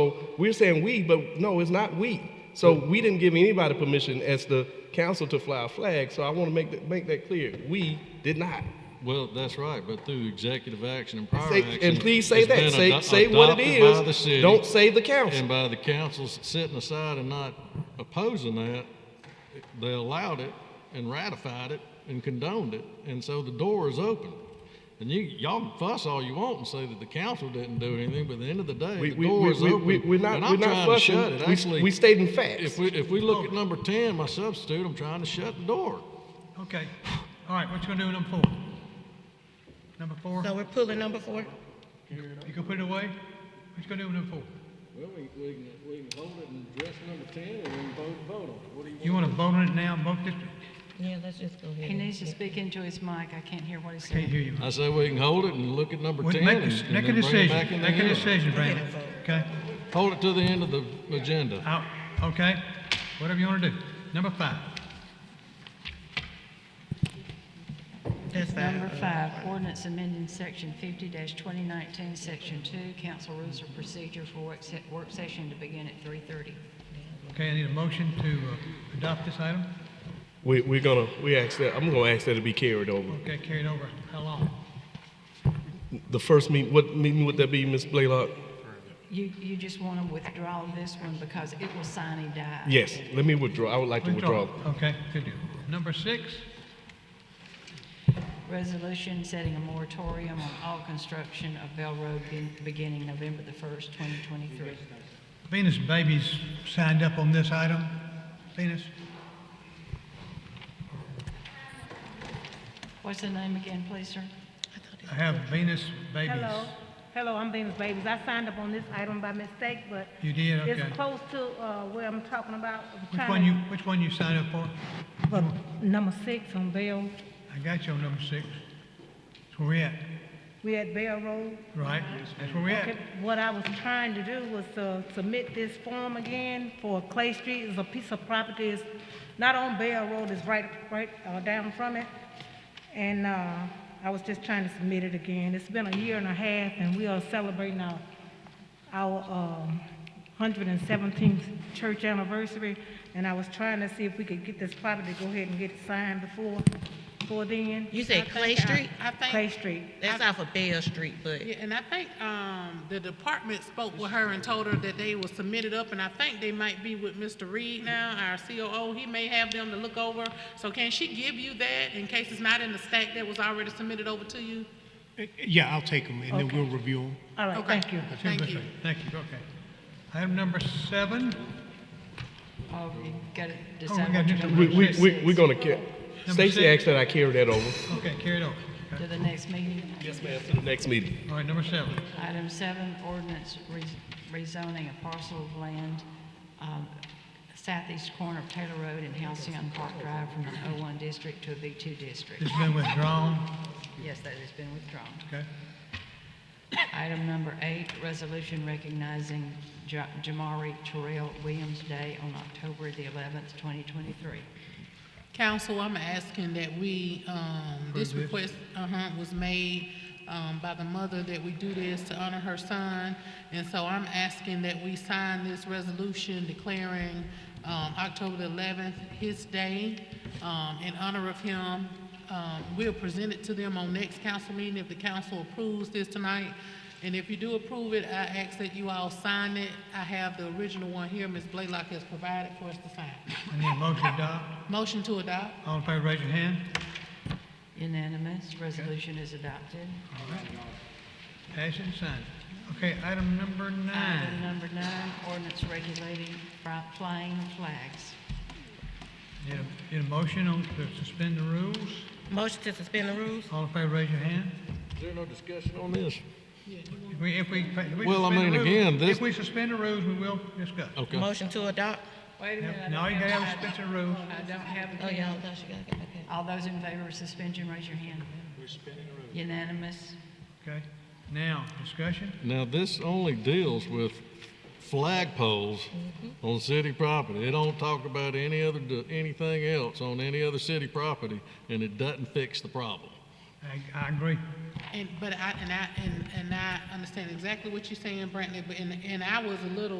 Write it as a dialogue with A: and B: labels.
A: So we're saying we, but no, it's not we. So we didn't give anybody permission as the council to fly a flag. So I want to make that, make that clear. We did not.
B: Well, that's right, but through executive action and prior
A: Say-
B: action.
A: and please say
B: it's been
A: that. Say,
B: ado-
A: say what it
B: adopted by the
A: is.
B: city
A: Don't say the council.
B: And by the councils sitting aside and not opposing that, they allowed it and ratified it and condoned it, and so the door is open. And you, y'all can fuss all you want and say that the council didn't do anything, but at the end of the day,
A: We,
B: the
A: we,
B: door
A: we,
B: is
A: we,
B: open.
A: we, we're not,
B: and
A: we're
B: I'm
A: not
B: trying to
A: fussing.
B: shut it.
A: We-
B: Actually,
A: we stated in facts.
B: If we, if we look at number ten, my substitute, I'm trying to shut the door.
C: Okay, all right, what you gonna do with number four? Number four,
D: So we're pulling number four?
C: you gonna put it away? What you gonna do with number four?
B: Well, we, we can, we can hold it and address number ten and then vote, vote on it. What do
C: You wanna vote on it now, vote this,
D: Yeah, let's just go ahead.
E: He
D: and-
E: needs to speak into his mic. I can't hear what he's
C: can't
E: saying.
C: hear you.
B: I say we can hold it and look at number
C: Well,
B: ten
C: Make
B: and
C: a,
B: and
C: make a
B: then bring it back
C: decision,
B: in the
C: make a
B: hearing.
C: decision, Brandon, okay?
B: Hold it to the end of the agenda.
C: Out, okay, whatever you wanna do. Number five,
D: That's fine.
E: Number five, ordinance amending section fifty twenty nineteen, section two, council rules of procedure for work, se- work session to begin at three thirty.
C: okay, I need a motion to uh, adopt this item.
A: We, we're gonna, we ask that, I'm gonna ask that it be carried over.
C: Okay, carried over, how long?
A: The first meeting, what meeting would that be, Ms. Blaylock?
E: You, you just want to withdraw this one because it will sign and die.
A: Yes, let me withdraw, I would like to withdraw.
C: Okay, good deal. Number six,
E: Resolution setting a moratorium on all construction of Bell Road be- beginning November the first, twenty twenty-three.
C: Venus Babies signed up on this item. Venus,
E: What's the name again, please, sir?
C: I have Venus Babies.
F: Hello, hello, I'm Venus Babies. I signed up on this item by mistake, but
C: You did, okay.
F: it's close to, uh, where I'm talking about. I'm
C: Which
F: trying
C: one
F: to-
C: you, which one you signed up for?
F: for Number six on Bell,
C: I got you on number six. That's where we at,
F: we at Bell Road.
C: right? That's where we at.
F: Okay, What I was trying to do was to submit this form again for Clay Street. It's a piece of property, it's not on Bell Road, it's right, right, uh, down from it. And, uh, I was just trying to submit it again. It's been a year and a half and we are celebrating our, our, um, hundred and seventeenth church anniversary. And I was trying to see if we could get this property, to go ahead and get it signed before, before then.
D: You said Clay Street?
G: I think.
F: Clay Street.
D: That's off of Bell Street, but
G: Yeah, and I think, um, the department spoke with her and told her that they will submit it up, and I think they might be with Mr. Reed now, our COO. He may have them to look over. So can she give you that in case it's not in the stack that was already submitted over to you?
H: Uh, Yeah, I'll take them, and then we'll review them.
F: All right,
G: Okay.
F: thank you.
C: That's where
G: Thank
C: that's
G: you.
C: at. Thank you, okay. Item number seven,
E: Oh, you got to
C: oh, we
E: decide
C: got
E: what you're
C: just
E: going
C: a
E: to
A: We,
C: number
A: we,
C: six.
A: we, we're gonna carry,
C: Number
A: Stacy
C: six.
A: asked that I carry that over.
C: Okay, carry it over.
E: to the next meeting.
A: Yes, ma'am. To the next meeting.
C: All right, number seven.
E: Item seven, ordinance re- rezoning a parcel of land, um, southeast corner of Taylor Road and Halcyon Park Drive from an O1 district to a B2 district.
C: This has been withdrawn,
E: Yes, that has been withdrawn.
C: okay?
E: Item number eight, resolution recognizing Ja- Jamari Terrell Williams Day on October the 11th, 2023.
G: Council, I'm asking that we, um, this
C: this?
G: request, uh-huh, was made, um, by the mother that we do this to honor her son. And so I'm asking that we sign this resolution declaring, um, October the eleventh his day, um, in honor of him. Um, we'll present it to them on next council meeting if the council approves this tonight. And if you do approve it, I ask that you all sign it. I have the original one here, Ms. Blaylock has provided for us to sign.
C: I need a motion to adopt.
G: Motion to adopt.
C: All in favor, raise your hand.
E: Unanimous, resolution is adopted.
C: Pass it and sign it. Okay, item number
E: Item
C: nine.
E: number nine, ordinance regulating fri- flying flags.
C: Need a, need a motion on, to suspend the rules.
D: motion to suspend the rules?
C: All in favor, raise your hand.
B: Is there no discussion on this?
C: If we, if we, if we
B: Well, I
C: suspend the
B: mean,
C: rules-
B: again, this-
C: If we suspend the rules, we will discuss.
B: Okay.
D: Motion to adopt?
E: Wait a minute. I
C: Now,
E: don't
C: you gotta have a
E: my-
C: suspension of rules.
E: I don't have
D: Oh,
E: it.
D: yeah, I thought you gotta get back in.
E: All those in favor of suspension, raise your hand. We're spinning around. Unanimous.
C: Okay, now, discussion?
B: Now, this only deals with flagpoles on city property. It don't talk about any other, anything else on any other city property, and it doesn't fix the problem.
C: I, I agree.
G: And, but I, and I, and, and I understand exactly what you're saying, Brantley, but, and, and I was a little